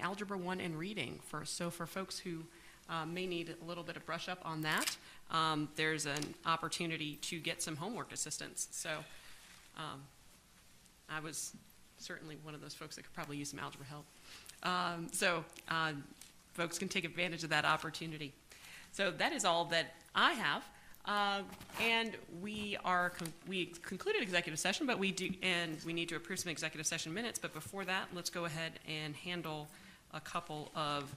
Algebra 1 and Reading. For, so for folks who uh, may need a little bit of brush up on that, um, there's an opportunity to get some homework assistance. So um, I was certainly one of those folks that could probably use some algebra help. Um, So uh, folks can take advantage of that opportunity. So that is all that I have. Uh, And we are, con- we concluded executive session, but we do, and we need to approve some executive session minutes. But before that, let's go ahead and handle a couple of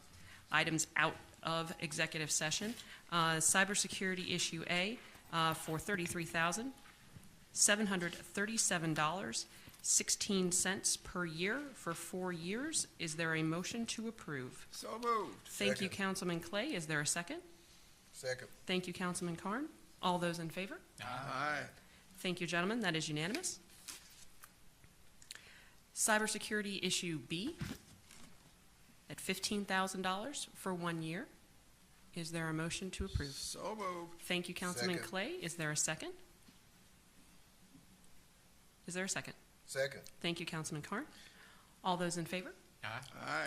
items out of executive session. Uh, Cybersecurity issue A uh, for $33,000. $737.16 per year for four years. Is there a motion to approve? So moved. Thank you, Councilman Clay. Is there a second? Second. Thank you, Councilman Carn. All those in favor? Aye. Thank you, gentlemen. That is unanimous. Cybersecurity issue B at $15,000 for one year. Is there a motion to approve? So moved. Thank you, Councilman Second. Clay. Is there a second? Is there a second? Second. Thank you, Councilman Carn. All those in favor? Aye.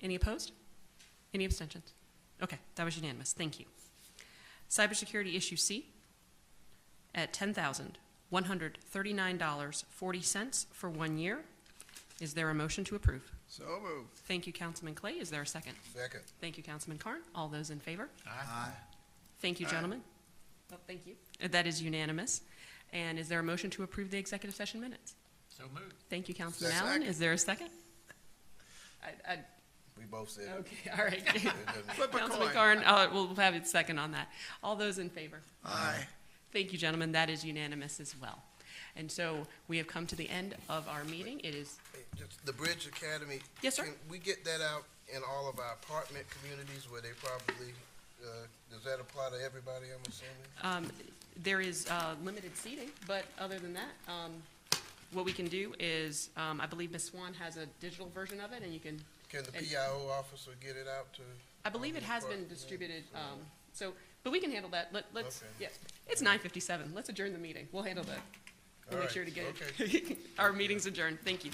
Any opposed? Any abstentions? Okay, that was unanimous. Thank you. Cybersecurity issue C at ten thousand one hundred thirty-nine dollars forty cents for one year. Is there a motion to approve? So moved. Thank you, Councilman Clay. Is there a second? Second. Thank you, Councilman Carn. All those in favor? Aye. Thank you, gentlemen. Oh, thank you. That is unanimous. And is there a motion to approve the executive session minutes? So moved. Thank you, Councilman Second. Allen. Is there a second? I, I, We both said it. Okay, all right. It doesn't- Flip a Councilman coin. Karn, uh, we'll have it second on that. All those in favor? Aye. Thank you, gentlemen. That is unanimous as well. And so we have come to the end of our meeting. It is, Hey, just The Bridge Academy. Yes, sir. Can we get that out in all of our apartment communities where they probably, uh, does that apply to everybody, I'm assuming? um, there is, uh, limited seating, but other than that, um, what we can do is, um, I believe Ms. Swan has a digital version of it and you can, Can the And- PIO officer get it out to? I believe it has been Apartment. distributed, um, so, but we can handle that. Let, let's, Okay. yes. It's nine fifty-seven. Let's adjourn the meeting. We'll handle that. We'll All make right, sure to get it. Our meeting's adjourned. Thank you.